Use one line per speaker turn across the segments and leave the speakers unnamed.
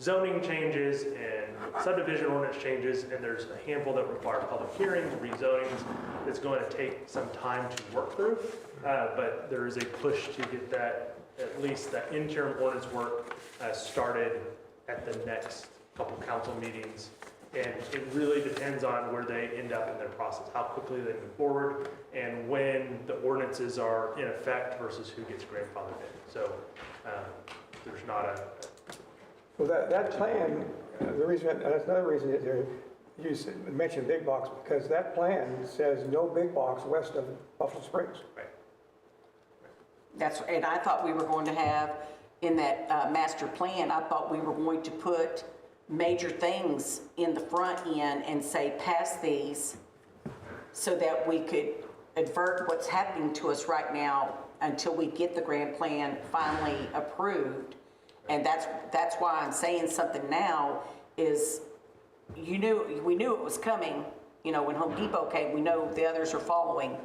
zoning changes and subdivision ordinance changes, and there's a handful that require public hearings, rezonings. It's going to take some time to work through, uh, but there is a push to get that, at least that interim ordinance work uh, started at the next couple council meetings. And it really depends on where they end up in their process, how quickly they move forward, and when the ordinances are in effect versus who gets grandfathered in. So um, there's not a,
Well, that, that plan, uh, the reason, and that's another reason that there- you s- mentioned big box, because that plan says no big box west of Buffalo Springs.
right.
That's, and I thought we were going to have, in that uh, master plan, I thought we were going to put major things in the front end and say, pass these, so that we could advert what's happening to us right now until we get the grand plan finally approved. And that's, that's why I'm saying something now is, you knew, we knew it was coming, you know, when Home Depot came, we know the others are following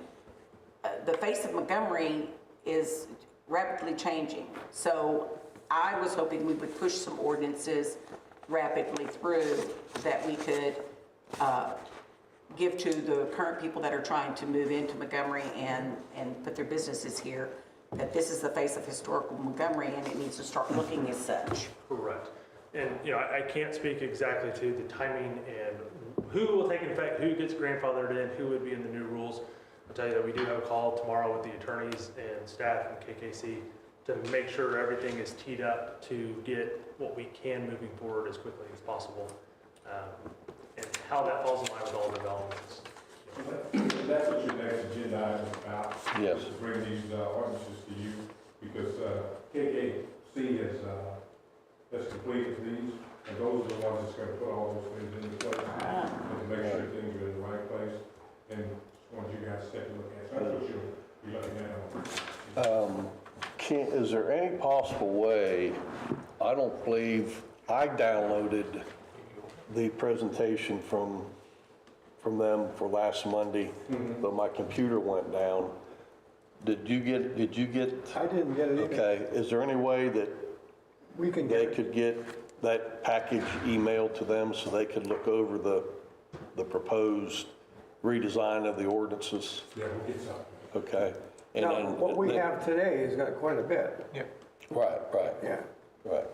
the face of Montgomery is rapidly changing. So I was hoping we would push some ordinances rapidly through that we could uh, give to the current people that are trying to move into Montgomery and, and put their businesses here, that this is the face of historical Montgomery and it needs to start looking as such.
Correct. And, you know, I I can't speak exactly to the timing and who will take effect, who gets grandfathered in, who would be in the new rules. I'll tell you that we do have a call tomorrow with the attorneys and staff and KKC to make sure everything is teed up to get what we can moving forward as quickly as possible. Um, And how that falls in line with all developments.
That's what your next agenda item is about.
Yes.
To bring these uh, ordinances to you, because uh, KKC has, uh, has completed these, and those are the ones that's gonna put all those things into place, and make sure things are in the right place, and just want you guys to take a look at. So that's what you're, you're looking at.
Can, is there any possible way, I don't believe, I downloaded the presentation from, from them for last Monday, but my computer went down. Did you get, did you get,
I didn't get it either.
okay, is there any way that
We can get
they
it.
could get that package emailed to them so they could look over the, the proposed redesign of the ordinances?
Yeah, we'll get something.
Okay? and
Now,
then-
what we have today has got quite a bit,
Right, right,
yeah.
right.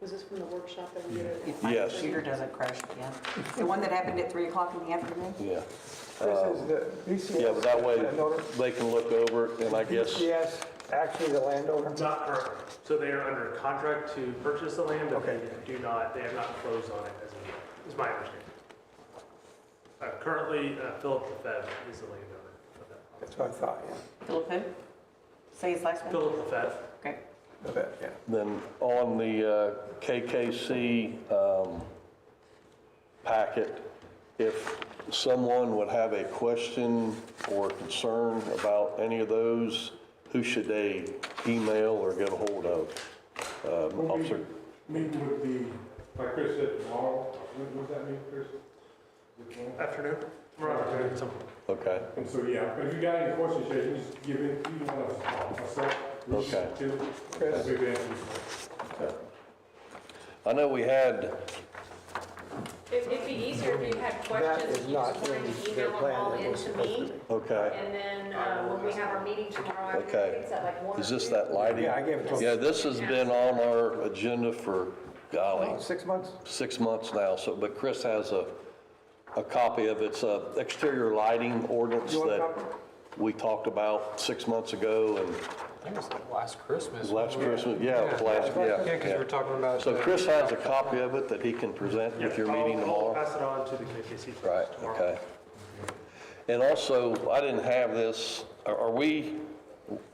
Was this from the workshop that we did?
If my
Yes.
computer doesn't crash again. The one that happened at 3 o'clock in the afternoon?
Yeah.
This is the BCS.
Um, Yeah, but that way
landowner.
they can look over it and I guess,
BCS, actually the landowner.
Not currently. So they are under contract to purchase the land, but they do not, they have not closed on it as of yet, is my understanding. Uh, Currently, uh, Philip Lefebvre is the landowner of that property.
That's what I thought, yeah.
Philip who? Say his last name.
Philip Lefebvre,
Okay.
A bit, yeah.
then on the uh, KKC um, packet, if someone would have a question or concern about any of those, who should they email or get a hold of? Um, Officer,
Meet with the, like Chris said, tomorrow, what does that mean, Chris? Is it tomorrow?
afternoon? We're on afternoon, so-
okay,
And so, yeah, if you got any questions, yeah, you just give it, you want us, myself, Rich,
Okay.
Tim,
Chris.
we've answered.
okay. I know we had,
It- It'd be easier if you had questions,
is
you
not
just wanted
in
to
their
email them
plan
all
that
in
was
to
supposed
me.
to be.
okay,
And then uh, when we have our meeting tomorrow
Okay.
afternoon, it's at like one or
is this
two.
that lighting?
Yeah, I gave it to him.
Yeah, this has been on our agenda for, golly,
Oh, Six months?
six months now, so, but Chris has a, a copy of it. It's a exterior lighting ordinance
You want a
that
copy?
we talked about six months ago and
I think it was like last Christmas.
last Christmas, yeah, it was last, yeah.
Yeah, because we were talking about.
So Chris has a copy of it that he can present with your
Yeah, Oh, I'll-
meeting
I'll
tomorrow?
pass it on to the KKC. folks
Right,
tomorrow.
okay. And also, I didn't have this, are, are we,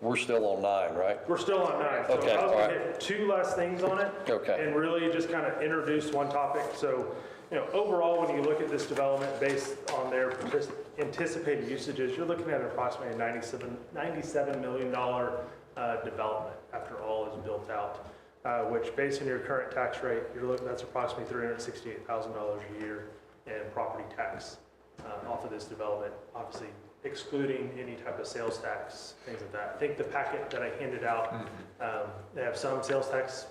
we're still on nine, right?
We're still on nine. so
Okay,
I was
all
gonna
right.
hit Two last things on it.
Okay.
And really just kind of introduce one topic. So, you know, overall, when you look at this development based on their partic- anticipated usages, you're looking at approximately a 97, $97 million dollar, uh, development after all is built out, uh, which based on your current tax rate, you're looking, that's approximately $368,000 a year in property tax uh, off of this development, obviously excluding any type of sales tax, things like that. I think the packet that I handed out, um, they have some sales tax